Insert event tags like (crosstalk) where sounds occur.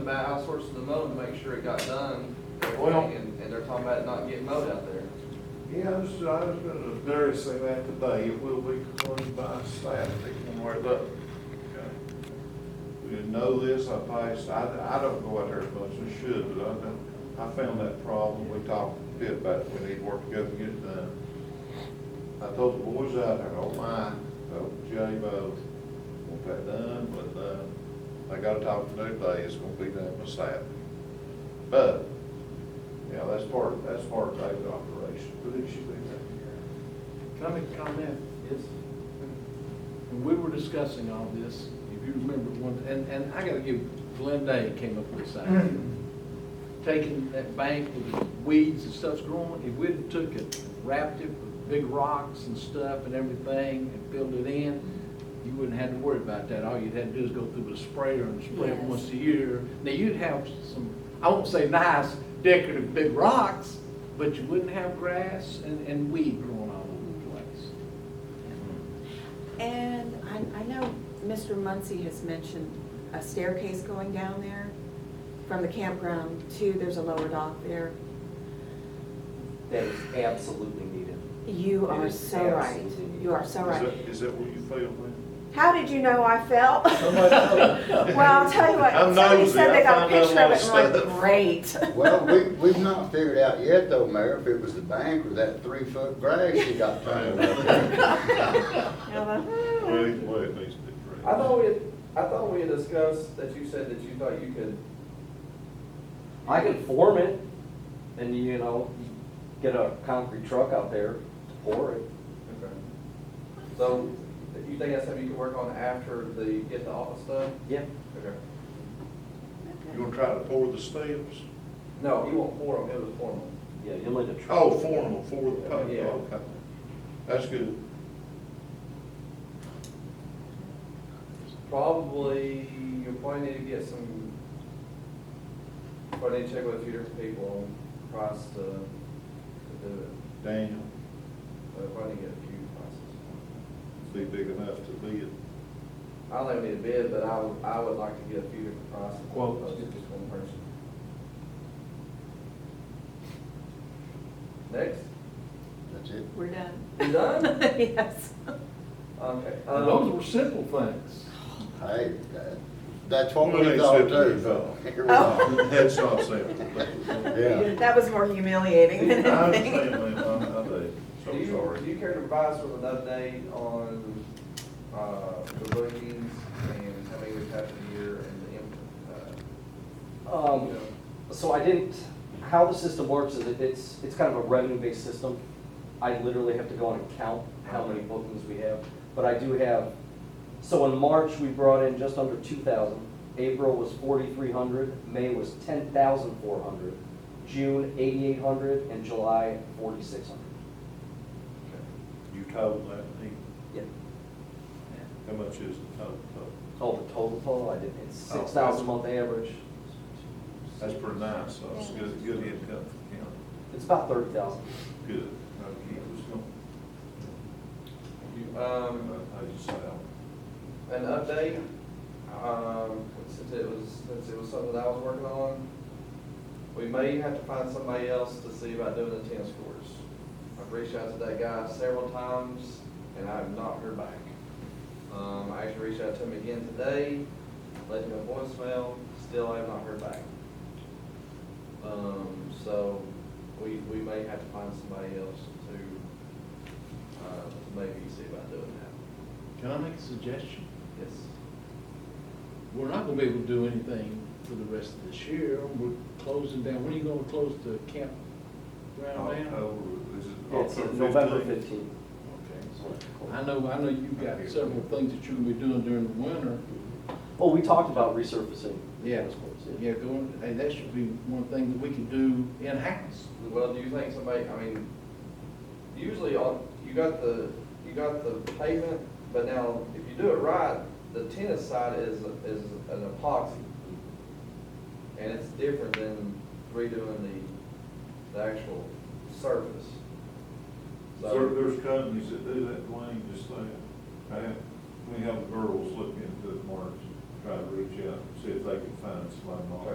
about outsourcing the mowing to make sure it got done, Well- everything, and, and they're talking about it not getting mowed out there. Yeah, I was, I was gonna notice that today, it will be closed by Saturday, one way or the other. We didn't know this, I passed, I, I don't go out there as much as I should, but I, know- I found that problem, we talked a bit about, it. we need to work together to get it done. I told the boys out there, oh my, oh, Jay Bo, want that done, but, uh, I gotta talk to them today, it's gonna be done by Saturday. But, yeah, that's part, that's part of Dave's operation, but it should be done. Can I make a comment? Yes. When we were discussing all this, if you remember one, and, and I gotta give, Glenn Day came up with this idea. Taking that bank with the weeds and stuff's growing, if we'd have took it, and wrapped it with big rocks and stuff and everything and filled it in, you wouldn't have to worry about that. All you'd have to do is go through with a sprayer and spray it Yes. once a year. Now, you'd have some, I won't say nice decorative big rocks, but you wouldn't have grass and, and weed growing all over the place. And I, I know Mr. Muncy has mentioned a staircase going down there from the campground to, there's a lower dock there. that is absolutely needed. You It are is so right. absolutely- You are so Is right. that- Is that what you feel, man? How did you know I felt? Somebody- Well, I'll tell you what, I'm somebody nosy. said I they got a find out picture of a it, and lot I'm of like, stuff. great. Well, we, (laughs) we've not figured out yet though, Mayor, if it was the bank or that three-foot grass you got planted up (laughs) there. I'm like, hmm. Well, either way, it needs to be addressed. I thought we had, I thought we had discussed that you said that you thought you could, I can form it and, you know, get a concrete truck out there to pour it. okay. So, you think that's something you could work on after the, get the office done? Yeah. Okay. You gonna try to pour the steps? No, you won't form them, it was formal. Yeah, you'll need a truck. Oh, formal, for the public, Yeah. okay. That's good. Probably, you'll probably need to get some, probably need to check with a few different people on price to, to do it. Daniel, But probably need to get a few prices. be big enough to be a I don't think we need a bid, but I would, I would like to get a few different prices. Quotes. Not Just one person. Next, That's it. We're done. You done? (laughs) Yes. (laughs) okay. um, Those were simple things. Hey, that- that's what Well, we they thought said too, we so thought. here we are. (laughs) head start sample. Yeah. That was more (laughs) humiliating I than anything. understand, man, I, I do, Do so you, do sorry. you care to provide us with an update on, uh, the bookings and how many we've had for the year and the, imp- uh, you Um, know? so I didn't, how the system works is it- it's, it's kind of a revenue-based system. I literally have to go and count how many bookings we have, but I do have, so in March, we brought in just under two thousand. April was forty-three hundred, May was ten thousand four hundred, June eighty-eight hundred, and July forty-six hundred. You told that, he, Yeah. how much is the total? Oh, the total total, I did, it's Oh, six thousand month average. That's pretty nice, so it's good, good income for the county, It's about thirty thousand. good. Okay, it was gonna- You, um, Uh, I just say, an update, um, since it was, since it was something that I was working on. We may have to find somebody else to see about doing the tennis courts. I've reached out to that guy several times, and I have not heard back. Um, I actually reached out to him again today, left him a voicemail, still I have not heard back. Um, so, we, we may have to find somebody else to, uh, to maybe see about doing that. Can I make a suggestion? Yes. We're not gonna be able to do anything for the rest of this year. We're closing down. When are you gonna close the campground down? October, is it It's October November 15th? fifteenth. oh. Okay. I know, I know you've got several things that you're gonna be doing during the winter. Oh, we talked about resurfacing. Yeah, yeah, going, hey, that should be one thing that we can do in-house. Well, do you think somebody, I mean, usually on, you got the, you got the pavement, but now if you do it right, the tennis side is, is an epoxy. And it's different than redoing the, the actual surface. There, So, there's companies that do that, Dwayne, just like, I have, we have the girls look into it, Mark, try to reach out, see if they can find somebody.